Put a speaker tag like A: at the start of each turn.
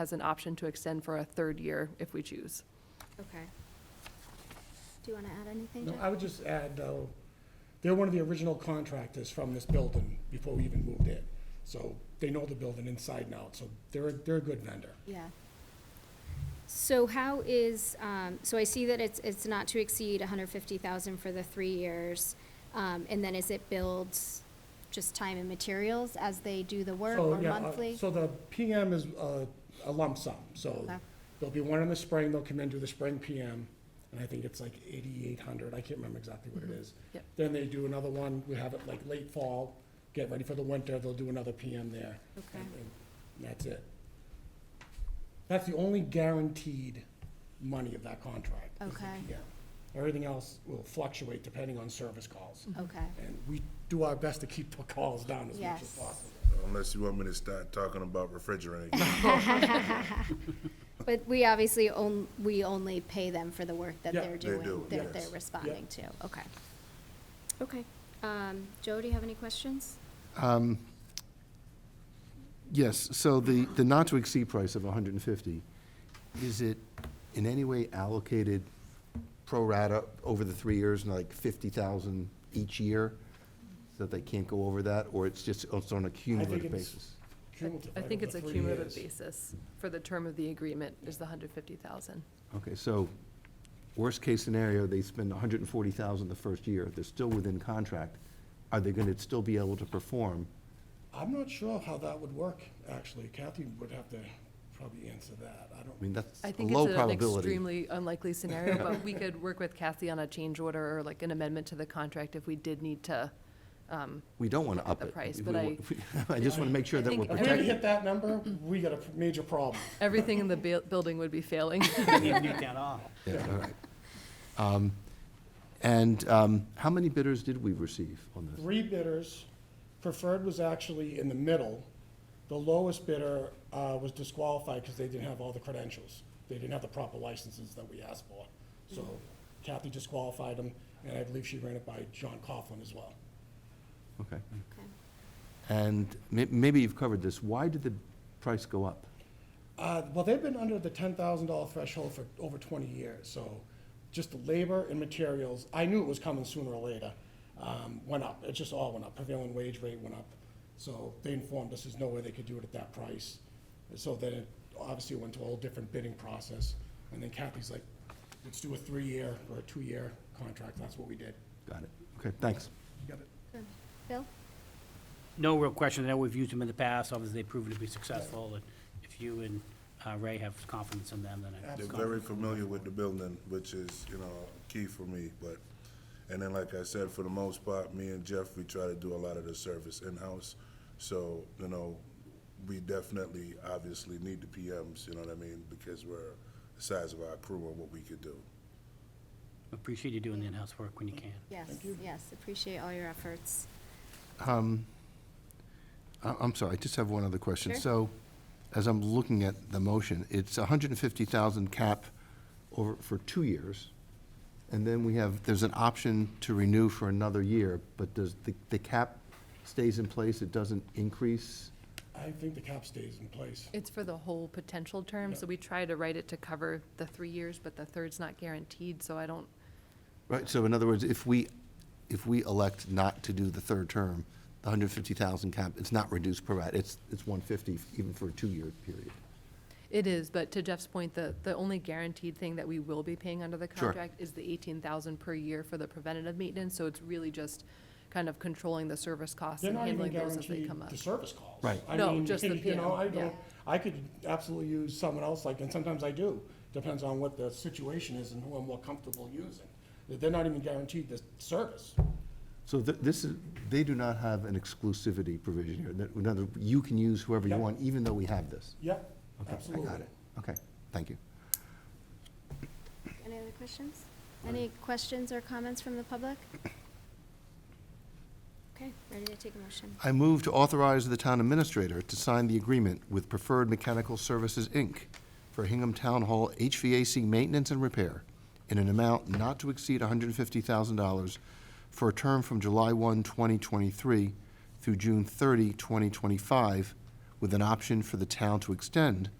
A: has an option to extend for a third year if we choose.
B: Okay. Do you want to add anything,
C: No,
B: Jeff?
C: I would just add, though, they're one of the original contractors from this building before we even moved in. So they know the building inside and out, so they're, a- they're a good vendor.
B: Yeah. So how is, um, so I see that it's, it's not to exceed hundred fifty thousand for the three years. Um, and then is it billed just time and materials as they do the work
C: So,
B: or
C: yeah, uh,
B: monthly?
C: So the PM is uh, a lump sum, so
B: Okay.
C: there'll be one in the spring, they'll come in, do the spring PM, and I think it's like eighty-eight hundred, I can't remember exactly what it
B: Mm-hmm.
C: is.
A: Yep.
C: Then they do another one, we have it like late fall, get ready for the winter, they'll do another PM there.
B: Okay.
C: and- and That's it. That's the only guaranteed money of that contract. is the
B: Okay.
C: PM. Everything else will fluctuate depending on service calls,
B: Okay,
C: and we do our best to keep the calls down as much as
B: Yes.
C: possible.
D: Unless you want me to start talking about refrigerating.
B: but we obviously on, we only pay them for the work that
C: Yeah.
B: they're
D: They
B: doing,
D: do,
B: that
D: yes.
B: they're
D: Yeah.
B: responding to, okay. Okay, um, Joe, do you have any questions?
E: Yes, so the, the not-to-exceed price of 150, is it in any way allocated pro rata over the three years, and like 50,000 each year, so that they can't go over that, or it's just, it's on a
C: I
E: cumulative
C: think it's
E: basis?
C: cumulative
A: I think
C: over
A: it's a
C: three
A: cumulative
C: years.
A: basis for the term of the agreement is the hundred fifty thousand.
E: Okay, so, worst-case scenario, they spend 140,000 the first year, they're still within contract, are they gonna still be able to perform?
C: I'm not sure how that would work, actually. Kathy would have to probably answer that. I
E: I mean,
C: don't,
E: that's
A: I
E: a
A: think
E: low
A: it's an
E: probability.
A: extremely unlikely scenario, but we could work with Kathy on a change order or like an amendment to the contract if we did need to.
E: We don't wanna up
A: the
E: it.
A: price,
E: We
A: but I-
E: want- I just wanna make sure
A: I
E: that
A: think
E: we're
C: if we
E: protected.
C: hit that number, we got a major problem.
A: Everything in the buil- building would be failing.
E: Yeah, all right. Um, And um, how many bidders did we receive on this?
C: Three bidders, preferred was actually in the middle. The lowest bidder uh, was disqualified because they didn't have all the credentials. They didn't have the proper licenses that we asked for. So Kathy disqualified them, and I believe she ran it by John Coughlin as well.
E: Okay.
B: Okay.
E: And may- maybe you've covered this. Why did the price go up?
C: Uh, Well, they've been under the ten thousand dollar threshold for over twenty years, so just the labor and materials, I knew it was coming sooner or later, um, went up, it just all went up, prevailing wage rate went up. So they informed us there's no way they could do it at that price, so then it obviously went to a whole different bidding process. And then Kathy's like, let's do a three-year or a two-year contract, that's what we did.
E: Got it. Okay, thanks.
B: Bill?
F: No real question. I know we've used them in the past. Obviously, they've proven to be successful. And if you and uh, Ray have confidence in them, then I
D: They're very familiar with the building, which is, you know, key for me, but, and then like I said, for the most part, me and Jeff, we try to do a lot of the service in-house. So, you know, we definitely, obviously need the PMs, you know what I mean, because we're the size of our crew and what we could do.
F: appreciate you doing the in-house work when you can.
B: Yes, yes, appreciate all your efforts.
E: I- I'm sorry, I just have one other question.
B: Sure.
E: So, as I'm looking at the motion, it's 150,000 cap over, for two years, and then we have, there's an option to renew for another year, but does, the the cap stays in place, it doesn't increase?
C: I think the cap stays in place.
A: It's for the whole potential term, so we try to write it to cover the three years, but the third's not guaranteed, so I don't,
E: Right, so in other words, if we, if we elect not to do the third term, the 150,000 cap, it's not reduced per rat, it's, it's 150 even for a two-year period.
A: It is, but to Jeff's point, the, the only guaranteed thing that we will be paying under the
E: Sure.
A: contract is the eighteen thousand per year for the preventative maintenance, so it's really just kind of controlling the service costs
C: They're
A: and
C: not even
A: handling those as they
C: guaranteed
A: come up.
C: the service calls.
E: Right.
C: I
A: No,
C: mean,
A: just the
C: You know, I
A: PM, yeah.
C: don't, I could absolutely use someone else, like, and sometimes I do, depends on what the situation is and who I'm more comfortable using. They're not even guaranteed the service.
E: So th- this is, they do not have an exclusivity provision here, that, in other, you can use whoever you
C: Yep.
E: want, even though we have this.
C: Yep,
E: Okay,
C: absolutely.
E: I got it, okay, thank you.
B: Any other questions? Any questions or comments from the public? Okay, ready to take a motion.
E: I move to authorize the town administrator to sign the agreement with Preferred Mechanical Services, Inc. for Hingham Town Hall HVAC maintenance and repair in an amount not to exceed $150,000 for a term from July 1, 2023 through June 30, 2025, with an option for the town to extend